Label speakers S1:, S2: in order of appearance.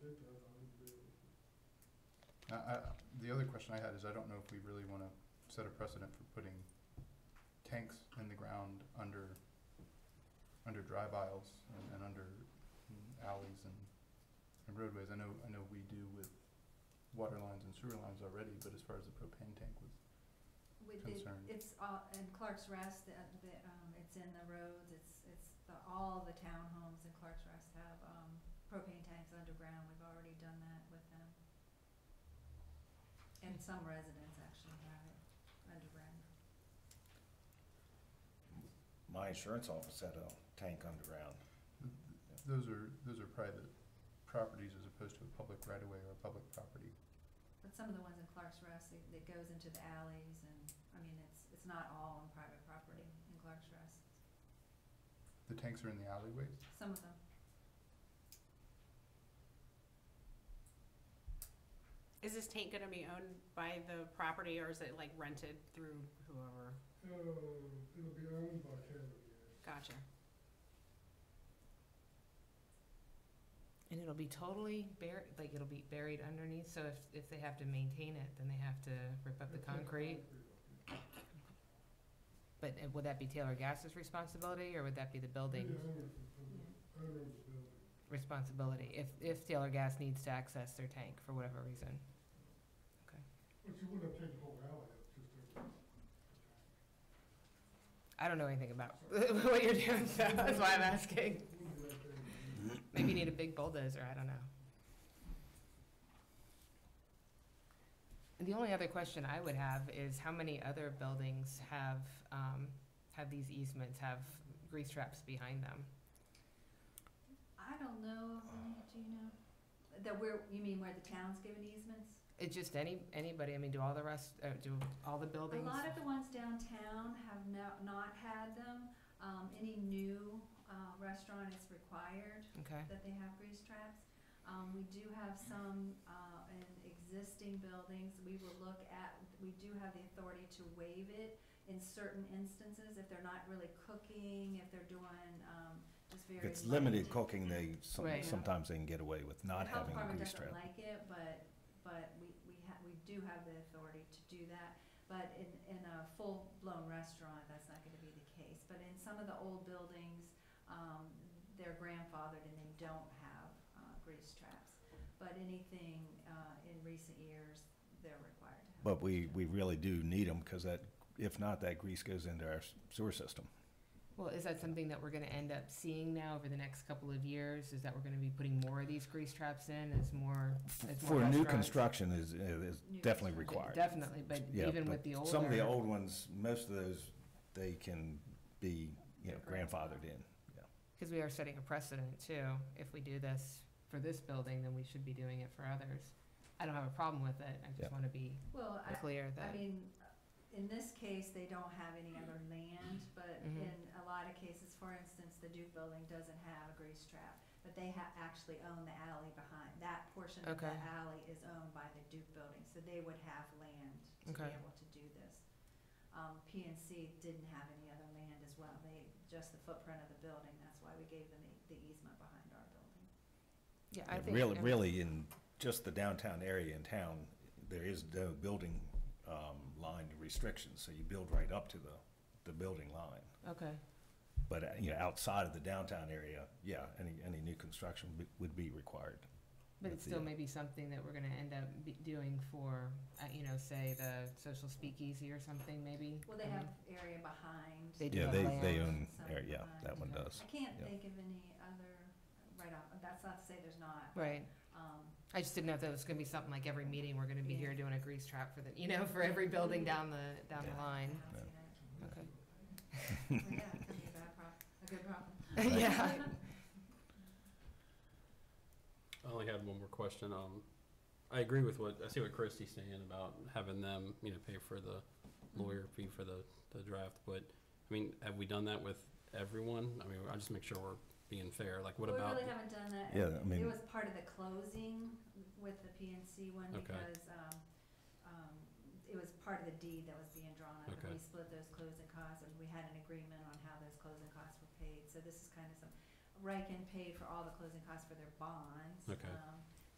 S1: get that, I would agree with you.
S2: I, I, the other question I had is I don't know if we really wanna set a precedent for putting tanks in the ground under, under drive aisles and, and under mm, alleys and, and roadways. I know, I know we do with water lines and sewer lines already, but as far as the propane tank was
S3: With the,
S2: concerned.
S3: it's all, in Clark's Rest, the, the, um, it's in the roads, it's, it's the, all the townhomes in Clark's Rest have, um, propane tanks underground, we've already done that with them. And some residents actually have it underground.
S4: My insurance office had a tank underground.
S2: Those are, those are private properties as opposed to a public right of way or a public property.
S3: But some of the ones in Clark's Rest, it, it goes into the alleys and, I mean, it's, it's not all on private property in Clark's Rest,
S2: The tanks are in the alleyways?
S3: some of them.
S5: Is this tank gonna be owned by the property or is it like rented through whoever?
S1: Uh, it'll be owned by Cavalier.
S5: Gotcha.
S6: And it'll be totally buried, like it'll be buried underneath, so if, if they have to maintain it, then they have to rip up the
S1: It's like
S6: concrete. But uh, would that be Taylor Gas's responsibility, or would that be the
S1: The
S6: building's
S1: owner of the- owner of the building.
S6: responsibility, if, if Taylor Gas needs to access their tank for whatever reason?
S1: But you wouldn't have taken the whole alley up, just over.
S6: I don't know anything about what you're doing, so that's why I'm asking.
S1: It wouldn't be that big of a deal.
S6: Maybe you need a big bulldozer, I don't know. And The only other question I would have is how many other buildings have, um, have these easements, have grease traps behind them?
S3: I don't know, of any, do you know? That where, you mean where the town's given easements?
S6: It's just any, anybody, I mean, do all the rest, uh, do all
S3: A
S6: the buildings?
S3: lot of the ones downtown have no- not had them. Um, Any new uh, restaurant is required
S6: Okay,
S3: that they have grease traps. Um, We do have some uh, in existing buildings. We will look at, we do have the authority to waive it in certain instances if they're not really cooking, if they're doing um, just very.
S4: If it's
S3: light.
S4: limited cooking, they, some-
S6: Right.
S4: sometimes they can get away with not having a grease
S3: The health department
S4: trap.
S3: doesn't like it, but, but we, we ha we do have the authority to do that. But in, in a full-blown restaurant, that's not gonna be the case. But in some of the old buildings, um, they're grandfathered and they don't have, uh, grease traps. But anything, uh, in recent years, they're required to have.
S4: But we, we really do need them, because that, if not, that grease goes into our s- sewer system.
S6: well, is that something that we're gonna end up seeing now over the next couple of years? Is that we're gonna be putting more of these grease traps in as more,
S4: F-
S6: as
S4: For
S6: more
S4: new
S6: restaurants?
S4: construction is, is
S3: New
S4: definitely
S3: construction.
S4: required.
S6: Definitely, but
S4: Yeah,
S6: even
S4: but
S6: with the older.
S4: Some of the old ones, most of those, they can be, you know, grandfathered in.
S6: Because we are setting a precedent too. If we do this for this building, then we should be doing it for others. I don't have a problem with it. I
S4: Yeah.
S6: just want to be
S3: Well, I,
S6: clear
S3: I
S6: that,
S3: mean, in this case, they don't have any other land, but
S6: Mhm.
S3: in a lot of cases, for instance, the Duke Building doesn't have a grease trap, but they ha- actually own the alley behind, that portion of the
S6: Okay.
S3: alley is owned by the Duke Building, so they would have land to be
S6: Okay.
S3: able to do this. Um, PNC didn't have any other land as well, they, just the footprint of the building, that's why we gave them the, the easement behind our building.
S6: yeah, I
S4: And
S6: think.
S4: Really,
S6: I-
S4: really in just the downtown area in town, there is no building, um, line restrictions, so you build right up to the, the building line.
S6: Okay,
S4: But, uh, you know, outside of the downtown area, yeah, any, any new construction would- would be required.
S6: but
S4: That's
S6: it's still
S4: the-
S6: maybe something that we're going to end up be- doing for, uh, you know, say the social speakeasy or something maybe.
S3: Well, they
S6: I
S3: have
S6: mean,
S3: area behind.
S6: They do
S4: Yeah,
S6: have
S4: they,
S6: land.
S4: they own,
S3: some
S4: area, yeah, that one
S6: behind.
S4: does.
S3: I can't
S4: Yeah.
S3: think of any other, right off, that's not to say there's not.
S6: Right.
S3: Um,
S6: I just didn't know if that was going to be something like every meeting, we're going to be
S3: Yeah.
S6: here doing a grease trap for the, you know, for every building down the, down
S4: Yeah.
S6: the
S3: I
S6: line.
S3: don't
S4: No.
S3: see
S6: Okay.
S3: that. Well, Yeah, it could be a bad problem, a good problem.
S4: Right.
S6: Yeah.
S7: I
S1: Oh,
S7: only had one more question. Um, I agree with what, I see what Christy's saying about having them, you know, pay for the lawyer fee for the, the draft, but, I mean, have we done that with everyone? I mean, I just make sure we're being fair, like, what
S3: We
S7: about?
S3: really haven't done that.
S4: Yeah, I
S3: It
S4: mean-
S3: was part of the closing with the PNC one
S7: Okay.
S3: because, um, um, it was part of the deed that was being drawn up. and
S7: Okay.
S3: We split those closing costs and we had an agreement on how those closing costs were paid. So this is kind of some, Riken paid for all the closing costs for their bonds.
S7: Okay.
S3: um,